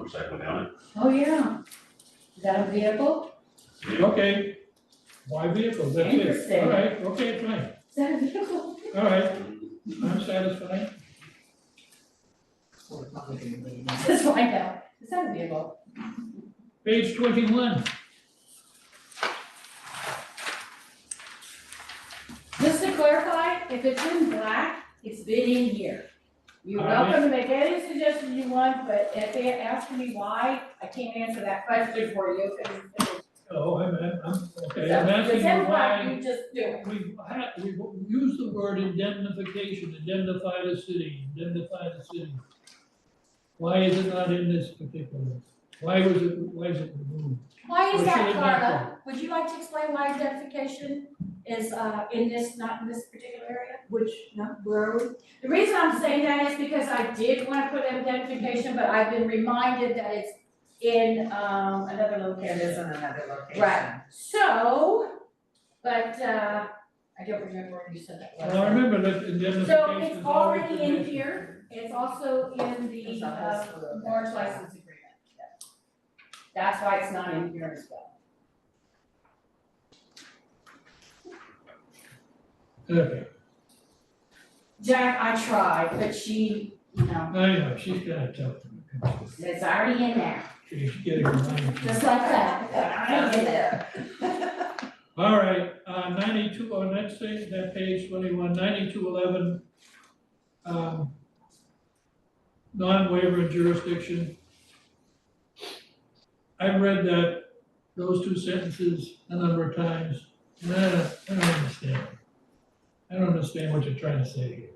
motorcycle on Oh, yeah. Is that a vehicle? it. Okay, why vehicles, that's it, Interesting. all right, okay, fine, Is that a vehicle? all right, I'm satisfied. Or not like anybody knows. Just find out. Is that a vehicle? Page twenty-one, Just to clarify, if it's in black, it's been in here. You're All right. welcome to make any suggestions you want, but if they ask me why, I can't answer that question for you. 'cause it's- oh, I'm, I'm, I'm- okay, I'm If asking it's you in black, why, you just do it. we've had, we've used the word indemnification, indemnify the city, indemnify the city. Why is it not in this particular, why was it, why is it removed? Why is Or should that, it not Carla? Would you like to explain why identification is uh in this, not in this particular area? Which, no, where are we? The reason I'm saying that is because I did wanna put identification, but I've been reminded that it's in um another It location. is in another location. Right. So, but uh, I don't remember where you said that was. Well, I remember that indemnification is So it's always already in mentioned. here, it's also in It's the a uh hospital that- marriage license agreement. That's why it's not in here as well. Okay, Jack, I tried, but she, you know, I know, she's gotta tell them, it's already in there, she's getting reminded. just like that. Already in there. All right, uh, ninety-two, on that thing, that page twenty-one, ninety-two eleven. Um. Non-waiver jurisdiction. I've read that, those two sentences a number of times, and I don't, I don't understand. I don't understand what you're trying to say here.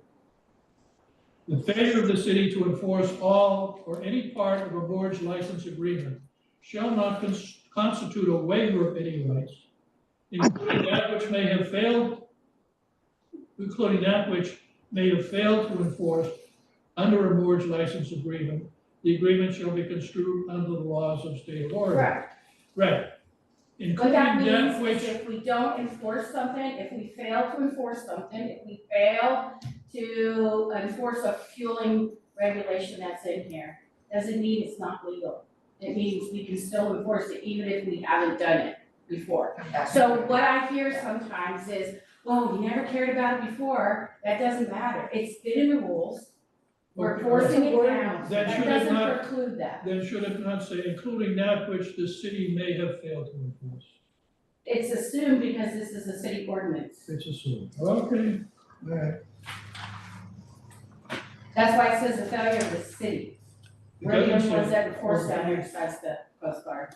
The failure of the city to enforce all or any part of a board's license agreement shall not cons- constitute a waiver of any rights including that which may have failed, including that which may have failed to enforce under a board's license agreement, the agreement shall be construed under the laws of state of Oregon. Correct, Right. what Including that that means is which, if we don't enforce something, if we fail to enforce something, if we fail to enforce a fueling regulation that's in here, doesn't mean it's not legal. It means we can still enforce it even if we haven't done it before. So what I hear sometimes is, well, we never cared about it before, that doesn't matter, it's been in the rules, we're Okay. forcing it now, That that should doesn't not- preclude that. then should it not say, including that which the city may have failed to enforce? It's assumed because this is a city ordinance, It's assumed. Okay, all right. that's why it says the failure of the city. It We're the only doesn't ones say- that enforce down here besides the Coast Guard.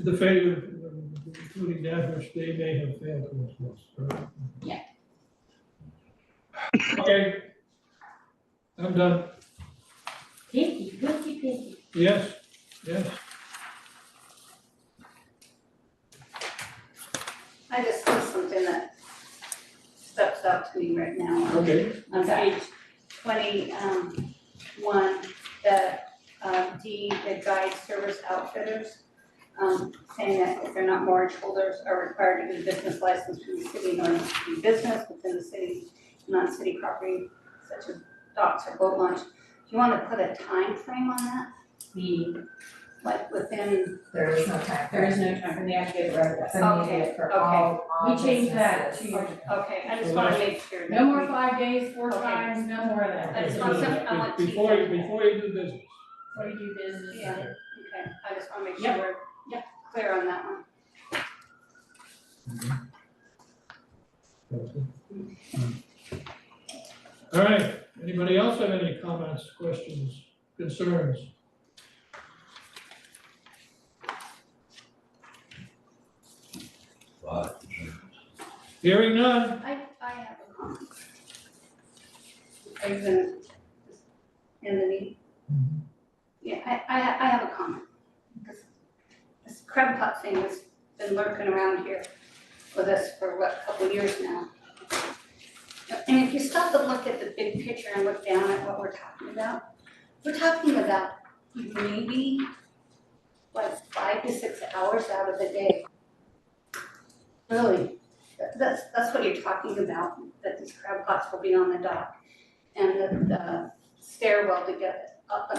The failure, uh, including that which they may have failed to enforce, correct? Yeah. Okay. I'm done, Pinky, pinky, pinky. yes, yes, I just saw something that steps out to me right now okay, on Okay. page twenty, um, one, the, uh, D, the guide service outfitters. Um, saying that if they're not mortgage holders are required to get a business license from the city in order to do business within the city, non-city property, such as docks or boat launch. Do you wanna put a time frame on that, The, like within, There is no time. there is no time, we have to get rid of It's that. immediate for Okay, all, all We changed that businesses. to, okay, I just wanna make sure. no more five days, four Okay. times, no more of that. I just want some- I want to- Before you, before you do business. What do you do business? Yeah. Okay, I just wanna make sure Yep. we're Yep. clear on that one. All right, anybody else have any comments, questions, concerns? But, Hearing none, I, I have a comment. Are you gonna, in the meeting? Mm-hmm. Yeah, I, I, I have a comment. This- This crab pot thing has been lurking around here with us for what, a couple years now. And if you stop to look at the big picture and look down at what we're talking about, we're talking about maybe like five to six hours out of the day. Really, that- That's, that's what you're talking about, that these crab pots will be on the dock and the, the stairwell to get up and